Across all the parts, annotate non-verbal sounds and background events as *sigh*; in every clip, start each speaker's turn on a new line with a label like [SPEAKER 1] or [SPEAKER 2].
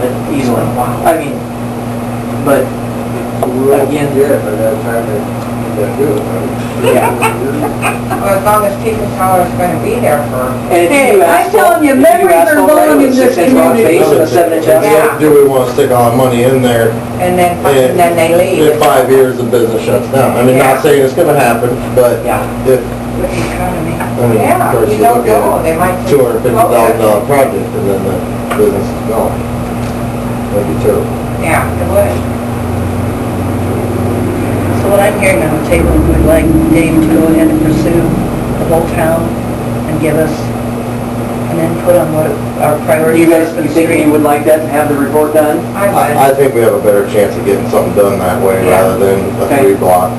[SPEAKER 1] could easily, I mean, but,
[SPEAKER 2] Again, yeah, but that's how they, they do it, right?
[SPEAKER 1] Yeah.
[SPEAKER 3] Well, as long as people tell us it's gonna be there for,
[SPEAKER 1] and if you
[SPEAKER 4] Hey, I'm
[SPEAKER 1] ask for-
[SPEAKER 4] telling you,
[SPEAKER 1] if you
[SPEAKER 4] memories
[SPEAKER 1] ask
[SPEAKER 4] are
[SPEAKER 1] for a
[SPEAKER 4] long
[SPEAKER 1] regular
[SPEAKER 4] in this
[SPEAKER 1] Six-inch long
[SPEAKER 4] community.
[SPEAKER 1] face and a seven-inch asphalt,
[SPEAKER 3] Yeah.
[SPEAKER 2] Do we wanna stick all the money in there?
[SPEAKER 3] and then, and then they leave.
[SPEAKER 2] In five years, the business shuts down. I mean,
[SPEAKER 3] Yeah.
[SPEAKER 2] not saying it's gonna happen, but
[SPEAKER 1] Yeah.
[SPEAKER 2] if
[SPEAKER 3] With the economy.
[SPEAKER 2] mean,
[SPEAKER 3] Yeah,
[SPEAKER 2] first
[SPEAKER 3] you
[SPEAKER 2] you
[SPEAKER 3] don't
[SPEAKER 2] look at
[SPEAKER 3] know, they might.
[SPEAKER 2] two hundred
[SPEAKER 3] Oh,
[SPEAKER 2] fifty thousand dollar project and then the business is gone, that'd be terrible.
[SPEAKER 3] Yeah, it would.
[SPEAKER 4] So what I'm hearing on the table, we'd like Dave to go ahead and pursue the whole town and give us an input on what our
[SPEAKER 1] Or
[SPEAKER 4] priorities
[SPEAKER 1] you
[SPEAKER 4] are
[SPEAKER 1] guys,
[SPEAKER 4] for
[SPEAKER 1] you
[SPEAKER 4] the
[SPEAKER 1] think you
[SPEAKER 4] street.
[SPEAKER 1] would like that and have the report done?
[SPEAKER 3] I would.
[SPEAKER 2] I, I think we have a better chance of getting something done that way
[SPEAKER 3] Yeah.
[SPEAKER 2] rather than
[SPEAKER 1] Okay.
[SPEAKER 2] a three block.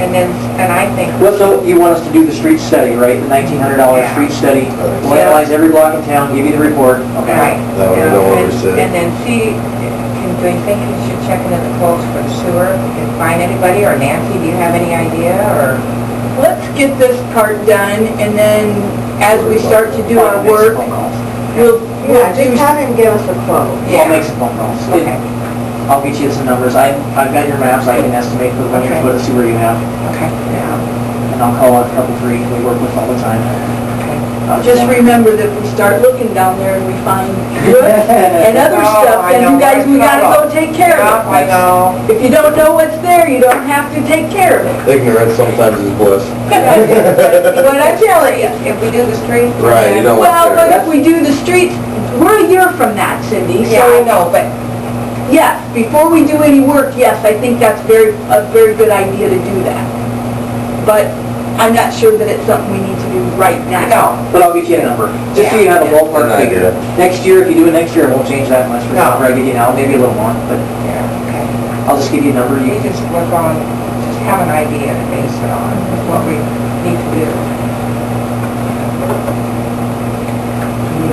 [SPEAKER 3] And then, and I think,
[SPEAKER 1] Well, so you want us to do the street study, right? The nineteen hundred dollar
[SPEAKER 3] Yeah.
[SPEAKER 1] street study,
[SPEAKER 2] Correct.
[SPEAKER 1] we'll analyze every block in town, give you the report,
[SPEAKER 3] right.
[SPEAKER 1] okay?
[SPEAKER 2] That way we don't
[SPEAKER 3] yeah, and-
[SPEAKER 2] overstay.
[SPEAKER 3] And then see, can, do you think you should check into the calls for the sewer, if you can find anybody, or Nancy, do you have any idea, or?
[SPEAKER 4] Let's get this part done, and then as we start to do our
[SPEAKER 1] I'll make some
[SPEAKER 4] work,
[SPEAKER 1] phone calls.
[SPEAKER 4] we'll,
[SPEAKER 5] Yeah,
[SPEAKER 4] we'll
[SPEAKER 5] just
[SPEAKER 4] do...
[SPEAKER 5] have him give us a quote.
[SPEAKER 1] I'll make some phone calls.
[SPEAKER 3] Okay,
[SPEAKER 1] I'll get you some numbers, I, I've got your maps, I can estimate the linear
[SPEAKER 3] Okay.
[SPEAKER 1] foot of sewer you have,
[SPEAKER 3] okay, yeah,
[SPEAKER 1] and I'll call a couple three, we work with all the time.
[SPEAKER 3] okay.
[SPEAKER 1] Uh,
[SPEAKER 4] Just remember that we start looking down there and we find good
[SPEAKER 3] *laughs*
[SPEAKER 4] and other
[SPEAKER 3] Oh,
[SPEAKER 4] stuff,
[SPEAKER 3] I
[SPEAKER 4] and
[SPEAKER 3] know.
[SPEAKER 4] you guys, we gotta go take care
[SPEAKER 3] Yeah, I
[SPEAKER 4] of it.
[SPEAKER 3] know.
[SPEAKER 4] If you don't know what's there, you don't have to take care of
[SPEAKER 3] *laughs*
[SPEAKER 4] it.
[SPEAKER 2] Ignorance sometimes is bliss.
[SPEAKER 4] But I tell you,
[SPEAKER 3] If we do the street.
[SPEAKER 2] Right, you don't want
[SPEAKER 4] well, but
[SPEAKER 2] there.
[SPEAKER 4] if we do the streets, we're a year from that, Cindy,
[SPEAKER 3] Yeah, I
[SPEAKER 4] so,
[SPEAKER 3] know, but
[SPEAKER 4] yes, before we do any work, yes, I think that's very, a very good idea to do that. But I'm not sure that it's something we need to do right now.
[SPEAKER 3] No,
[SPEAKER 1] But I'll get you a number, just so you have a ballpark
[SPEAKER 2] Good
[SPEAKER 1] figure.
[SPEAKER 2] idea.
[SPEAKER 1] Next year, if you do it next year, it won't change that much, but
[SPEAKER 3] No.
[SPEAKER 1] I give you now, maybe a little more, but
[SPEAKER 3] yeah,
[SPEAKER 1] I'll just give you a number,
[SPEAKER 3] okay.
[SPEAKER 1] you
[SPEAKER 3] We
[SPEAKER 1] can
[SPEAKER 3] just work on, just have an idea to base it on, of what we need to do.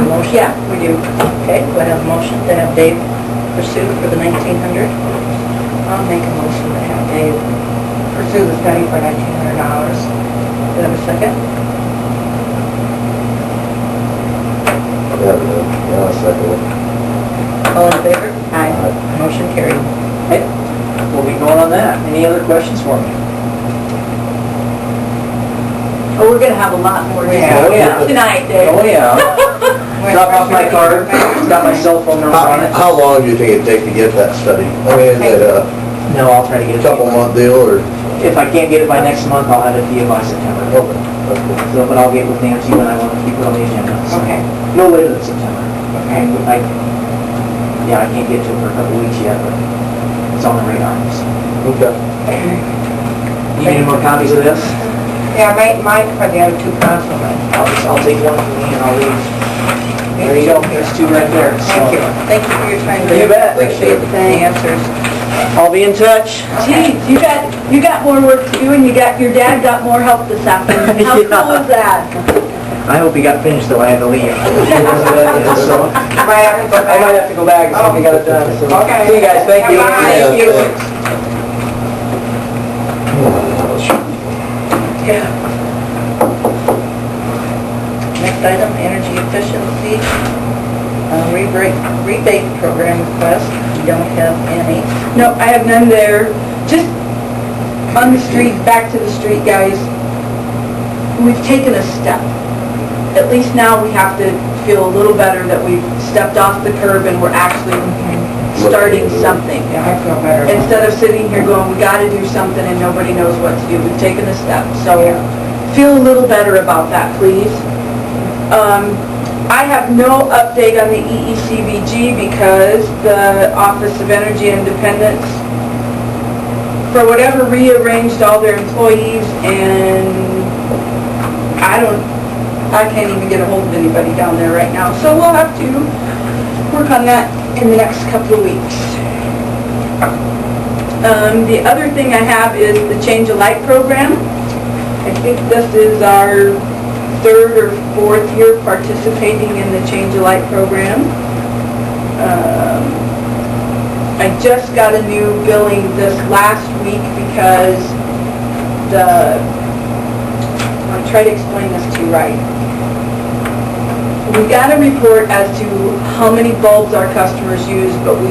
[SPEAKER 4] Motion? Yeah, we do. Okay, we have a motion to have Dave pursue for the 1900. I'll make a motion to have Dave.
[SPEAKER 3] Pursue the study for nineteen hundred dollars.
[SPEAKER 4] Do you have a second?
[SPEAKER 2] Yeah, yeah, I second
[SPEAKER 4] All in favor? Aye.
[SPEAKER 2] Aye.
[SPEAKER 4] Motion carried.
[SPEAKER 1] Okay, we'll be going on that. Any other questions for me?
[SPEAKER 4] Oh, we're gonna have a lot more to
[SPEAKER 3] Yeah,
[SPEAKER 1] oh, yeah.
[SPEAKER 4] do tonight, Dave.
[SPEAKER 1] Oh, yeah. Drop off my card, got my cell phone
[SPEAKER 2] it.
[SPEAKER 1] number on
[SPEAKER 2] How,
[SPEAKER 1] it.
[SPEAKER 2] how long do you think it'd take to get that study? I mean, is it a
[SPEAKER 1] No, I'll try to get it. to you.
[SPEAKER 2] couple month deal or?
[SPEAKER 1] If I can't get it by next month, I'll have it to you by September.
[SPEAKER 2] Okay, that's cool.
[SPEAKER 1] So, but I'll get with Nancy when I want to keep it on the agenda. so.
[SPEAKER 3] Okay,
[SPEAKER 1] No later than September.
[SPEAKER 3] okay.
[SPEAKER 1] And I, yeah, I can't get to it for a couple weeks yet, but it's on the radar. so.
[SPEAKER 2] Okay.
[SPEAKER 1] You need any more copies of this?
[SPEAKER 3] Yeah, make mine for the other two councilmen.
[SPEAKER 1] I'll, just- I'll take one from me and I'll leave. There you go, there's two right there. so.
[SPEAKER 3] Thank you.
[SPEAKER 4] Thank you for your time,
[SPEAKER 1] You
[SPEAKER 4] Dave.
[SPEAKER 1] bet.
[SPEAKER 4] Appreciate the answers.
[SPEAKER 1] I'll be in touch.
[SPEAKER 4] Geez, you got, you got more work to do, and you got, your dad got more help this afternoon. How cool is that?
[SPEAKER 1] I hope he got finished though, I had to *laughs* leave. So,
[SPEAKER 3] You might have to go
[SPEAKER 1] I might
[SPEAKER 3] back.
[SPEAKER 1] have to go back and see if I got it done. so.
[SPEAKER 3] Okay.
[SPEAKER 1] See you guys, thank you.
[SPEAKER 3] Bye-bye. Thank you.
[SPEAKER 2] Yeah, thanks.
[SPEAKER 4] Yeah. Next item, energy efficiency, uh, rebate, rebate program request. You don't have any. No, I have none there. Just on the street, back to the street, guys. We've taken a step. At least now we have to feel a little better that we've stepped off the curb and we're actually starting something
[SPEAKER 3] Yeah, I feel better.
[SPEAKER 4] instead of sitting here going, we gotta do something and nobody knows what to do, we've taken a step, so feel a little better about that, please. Um, I have no update on the E EECBG because the Office of Energy Independence, for whatever, rearranged all their employees and I don't, I can't even get a hold of anybody down there right now, so we'll have to work on that in the next couple of weeks. Um, the other thing I have is the Change of Light program. I think this is our third or fourth year participating in the Change of Light program. Um, I just got a new billing this last week because the, I'll try to explain this to you right. we got a report as to how many bulbs our customers use, but we